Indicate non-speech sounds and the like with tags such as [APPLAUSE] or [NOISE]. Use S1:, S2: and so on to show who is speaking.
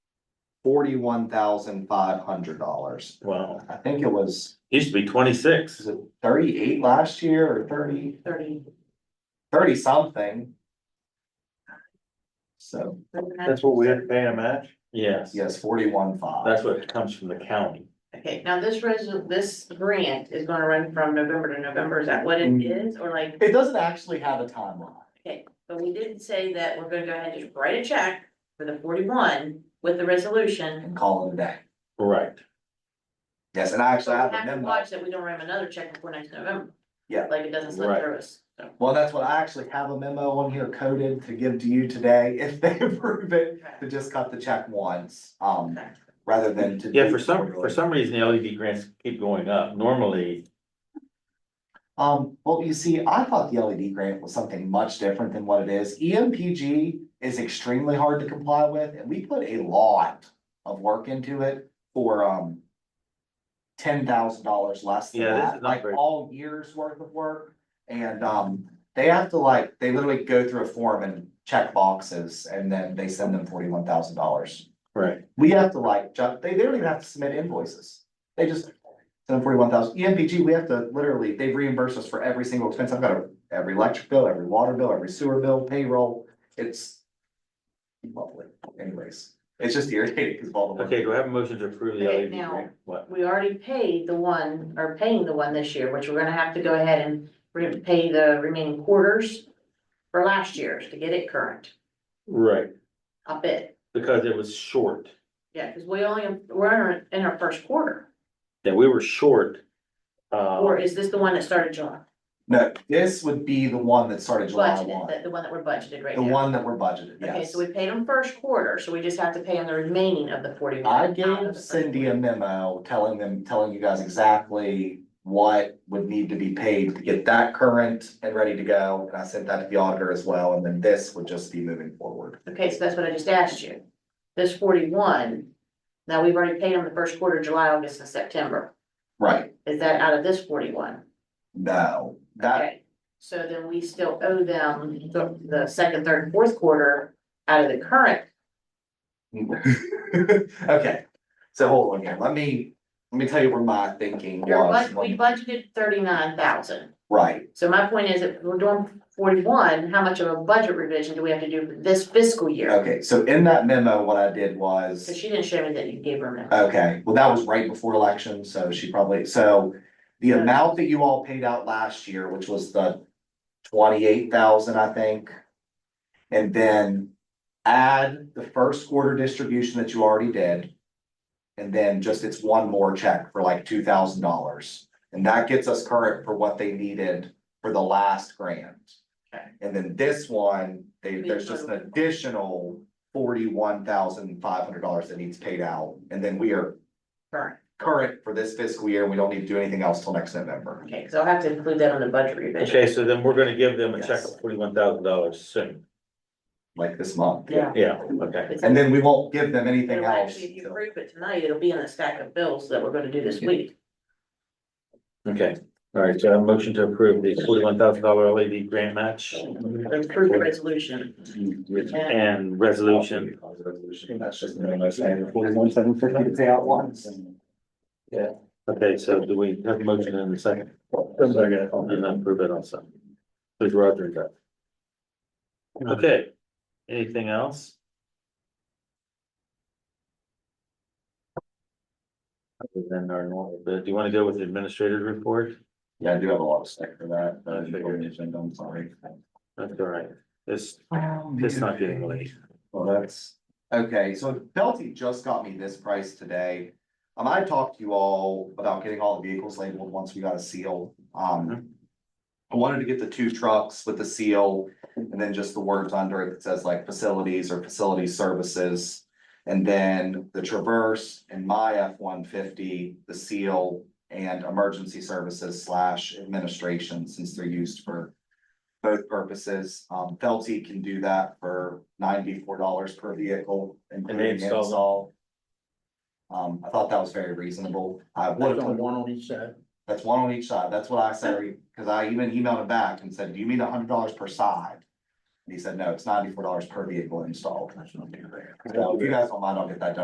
S1: forty-one thousand five hundred dollars.
S2: Wow.
S1: I think it was,
S2: Used to be
S1: was
S2: twenty-six.
S1: it thirty-eight last year or thirty,
S3: thirty.
S1: thirty something? So,
S3: That's
S4: pay a match?
S2: Yes,
S1: yes, forty-one five.
S2: that's what comes from the county.
S3: Okay, now this resol, this grant is gonna run from November to November, is that what it
S1: Mhm.
S3: is, or like,
S1: It doesn't actually have a timeline.
S3: but we didn't say that we're gonna go ahead and just write a check for the forty-one with the resolution.
S1: and call it a day.
S2: Right.
S1: Yes, and I actually have
S3: We
S1: a
S3: have to
S1: memo.
S3: watch that we don't write another check before next November.
S1: Yeah.
S3: Like it doesn't slip
S2: Right.
S3: through us, so.
S1: Well, that's what I actually have a memo on here coded to give to you today [LAUGHS] if they approve it, to just cut the check once, um, rather than to.
S2: Yeah,
S1: do
S2: for some, for
S1: quarterly.
S2: some reason, the LED grants keep going up. Normally,
S1: Um, well, you see, I thought the LED grant was something much different than what it is. E EMPG is extremely hard to comply with, and we put a lot of work into it for, um, ten thousand dollars less than
S2: Yeah, this
S1: that,
S2: is not
S1: like
S2: very-
S1: all years worth of work. And, um, they have to like, they literally go through a form and check boxes, and then they send them forty-one thousand dollars.
S2: right,
S1: We have to like, ju- they, they don't even have to submit invoices. They just send them forty-one thousand. E EMPG, we have to literally, they've reimbursed us for every single expense. I've got a- every electric bill, every water bill, every sewer bill, payroll. It's lovely anyways. It's just irritating because of all the. work.
S2: okay, do I have a motion to approve the
S3: Okay,
S2: LED
S3: now-
S2: grant? What?
S3: We already paid the one, or paying the one this year, which we're gonna have to go ahead and re- pay the remaining quarters for last year's to get it current,
S2: Right,
S3: I bet.
S2: because it was short,
S3: Yeah, cause we only, we're in our- in our first quarter,
S2: that we were short.
S3: or
S2: Uh,
S3: is this the one that started July?
S1: No, this would be the one that started July
S3: Budgeted,
S1: one,
S3: the, the one that we're budgeted right
S1: the
S3: now.
S1: one that we're budgeted,
S3: Okay,
S1: yes.
S3: so we paid them first quarter, so we just have to pay them the remaining of the forty-one.
S1: I
S3: out of
S1: gave
S3: the
S1: Cindy a memo telling them, telling you guys exactly what would need to be paid to get that current and ready to go. And I sent that to the auditor as well, and then this would just be moving forward.
S3: first- Okay, so that's what I just asked you. This forty-one, now we've already paid them the first quarter, July, August, and September.
S1: Right,
S3: Is that out of this forty-one?
S1: no, that, [LAUGHS]
S3: Okay, so then we still owe them the, the second, third, and fourth quarter out of the current.
S1: okay. So hold on here, let me, let me tell you where my thinking
S3: Your bud-
S1: was.
S3: we budgeted thirty-nine thousand.
S1: Right,
S3: So my point is, if we're doing forty-one, how much of a budget revision do we have to do for this fiscal year?
S1: okay, so in that memo, what I did was.
S3: So she didn't show me that you gave her a number.
S1: Okay, well, that was right before election, so she probably, so the amount that you all paid out last year, which was the twenty-eight thousand, I think. And then add the first quarter distribution that you already did. And then just it's one more check for like two thousand dollars, and that gets us current for what they needed for the last grant.
S3: Okay.
S1: And then this one, they,
S3: Maybe
S1: there's
S3: a
S1: just an
S3: little bit more.
S1: additional forty-one thousand five hundred dollars that needs paid out, and then we are
S3: Current.
S1: current for this fiscal year, and we don't need to do anything else till next November.
S3: Okay, because I'll have to include that on the budget revision.
S2: okay, so then we're gonna give them a check
S1: Yes.
S2: of forty-one thousand dollars soon.
S1: Like this month.
S3: Yeah.
S2: Yeah, okay.
S3: It's-
S1: And then we won't give them anything
S3: it'll
S1: else.
S3: Actually, if you approve it tonight, it'll be in the stack of bills that we're gonna do this week.
S2: Okay, all right, so I have a motion to approve the forty-one thousand dollar LED grant match
S3: Approve the resolution.
S2: and resolution.
S1: That's just the memo saying forty-one, seven fifty to pay out once.
S2: Okay, so do we have a motion in a second? And then approve it also. Please, Roger, and Jeff. Okay, anything else? Other than our normal, but do you want to go with the administrator's report?
S1: Yeah, I do have a lot of stick for that,
S2: but I didn't
S1: I'm sorry.
S2: That's all right, it's, it's not getting late.
S1: Well, that's, okay, so Pelty just got me this price today. Um, I talked to you all about getting all the vehicles labeled once we got a seal, um. I wanted to get the two trucks with the seal and then just the words under it that says like facilities or facility services. And then the Traverse and my F one fifty, the seal and emergency services slash administration, since they're used for both purposes. Um, Felty can do that for ninety-four dollars per vehicle, including
S2: install them?
S1: install. Um, I thought that was very reasonable. I would have,
S4: one on each side.
S1: that's one on each side. That's what I said, because I even emailed him back and said, do you mean hundred dollars per side? And he said, no, it's ninety-four dollars per vehicle installed. So if you guys don't mind, I'll get that done